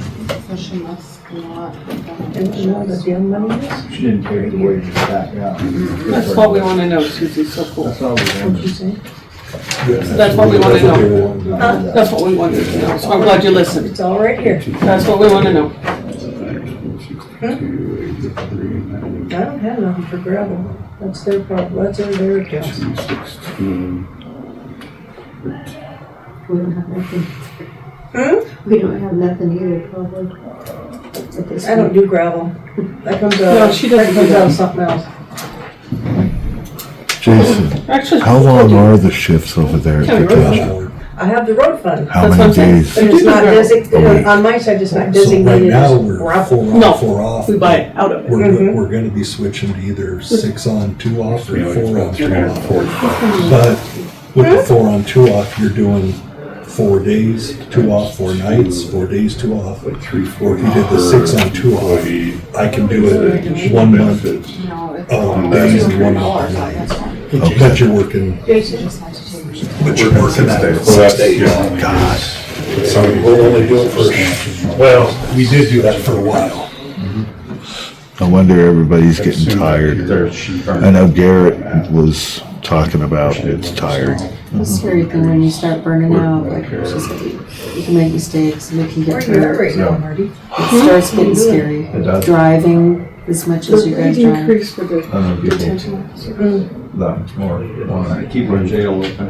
position that's not. And you know what the damn money is? She didn't pay the wages back out. That's what we want to know, Susie, so cool. That's all we What'd you wanted. say? That's what we want to know. know. That's what we wanted to know, so I'm glad you listened. It's all right here. That's what we want to know. I don't have nothing for gravel. That's their problem. That's their, their account. We don't have nothing. Hmm? We don't have nothing either, probably. At this I don't point. do gravel. That comes out, No, she doesn't that do comes out that. of something else. Jason, Actually, how long are the shifts over there County at road fund. Katasha? I have the road fund. How That's what I'm saying. many days? But it's not Okay. designated, on my side, it's not So right designated now, as we're gravel. four No, on, four off. we buy it out of it. We're, Mhm. we're gonna be switching to either six on, two off, or four on, two off. Hmm. But with Mm-hmm. the four on, two off, you're doing four days, two off, four nights, four days, two off. Or if you did the six on, two off, I can do it one month, No, it's. um, days and one off Dollars on nights. this one. But you're working, Jason just had to take. but you're working that six Six days. days. God. So we'll only do it for, well, we did do that for a while. I wonder everybody's getting tired. I know Garrett was talking about it's tired. The scary thing when you start burning out, like, it's just like, you can make mistakes, and you can Where get you at hurt. right now, Marty? It starts getting scary. It does. Driving as much as you guys drive. increase for the I know people detention officer. Mm-hmm. that much more want to keep our jail open.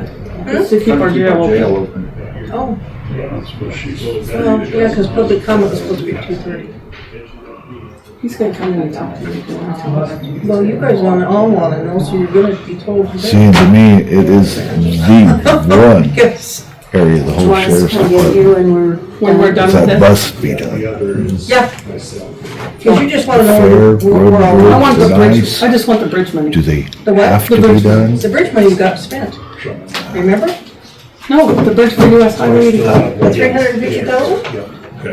To keep our jail open. open. Hmm? Oh. Well, yeah, because public comment was supposed to be at two thirty. He's gonna come in and talk to you. if you want to. Well, you guys wanna, all wanna know, so you're gonna be told today. Seeing to me, it is the one Yes. area of Do the you whole want us to Oh, sheriff's come get department you when we're? When we're done with that this. must be done. Yeah. Because you just wanna know. Fair, where- where- where all- road, I want the bridge, Nice. I just want the bridge money. Do they The what? have The to be bridge- done? The bridge money got spent, remember? No, the bridge for US Highway eighty-five. The three hundred and fifty thousand?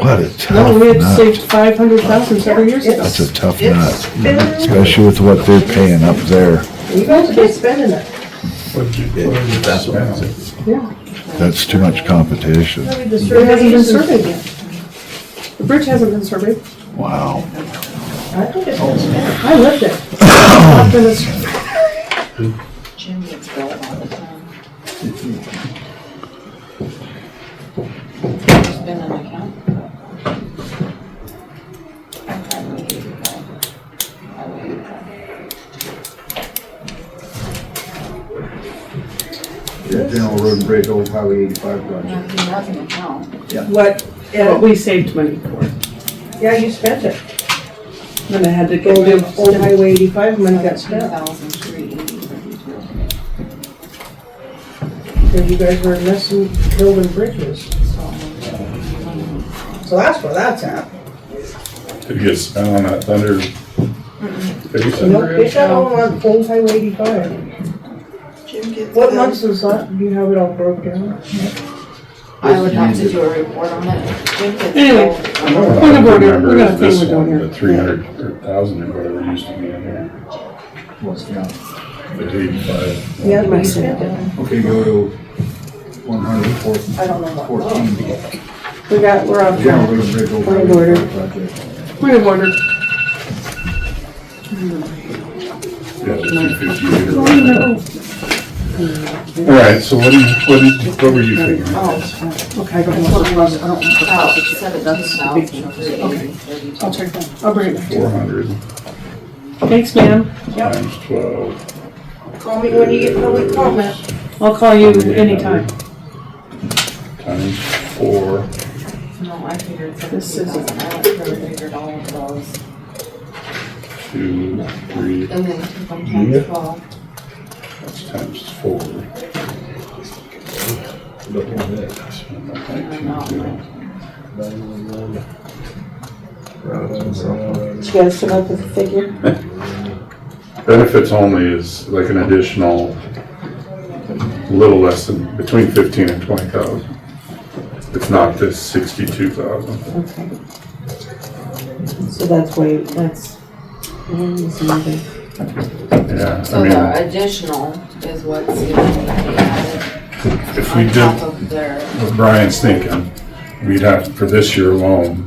What a tough No, we had nut. saved five hundred thousand several years ago. That's a tough It's nut, been, especially with what they're paying up there. you guys have been spending it. Yeah, That's too much competition. Maybe the it hasn't been surveys and- surveyed yet. The bridge hasn't been surveyed. Wow. I think it's been spent. I lived it. Not been a survey. Jim gets billed all the time. There's been an account. I probably hate it, but I would hate that. General Road and Bridge, Old Highway 85 project. Nothing, nothing account. What, But yeah, we saved money for it. yeah, you spent it. Then I had to get Old, rid old of, Highway eighty-five money got spent, 1,383. because you guys were messing, building bridges. So that's where that's at. Did it get spent on that thunder? Nope, it's got all on Old Highway eighty-five. What months is that? Do you have it all broke down? I would have to do a report on it. Jim gets Anyway. billed. Point of order. We got a thing this we're doing one, here. The three hundred, or thousand or whatever used to be in there, What's down? the eighty-five. Yeah, you spent it. Okay, go to 114. I don't know what. we got, we're off General track. Road and Bridge, Old Point of Highway order. 85 project. Point of order. Yeah, the two fifty-eight or whatever. All right, so what do you, what did, what were you thinking? Oh, okay, I don't want the, I don't want the. About 17,383. I'll check that, I'll bring it back. Four hundred Thanks, ma'am. times twelve. Call me when you get public comment. I'll call you anytime. Times four. No, I figured This seventeen is- thousand. I went through and figured all of those. two, three, And then took them Yeah. times twelve. that's times four. Look at that. Nineteen, zero. Did you guys come up with a figure? Benefits only is like an additional, little less than, between fifteen and twenty thousand. It's not this sixty-two thousand. Okay. So that's way, that's, that's another. Yeah, So I the additional is what's gonna be added mean, if we on top did, of their. what Brian's thinking, we'd have, for this year alone,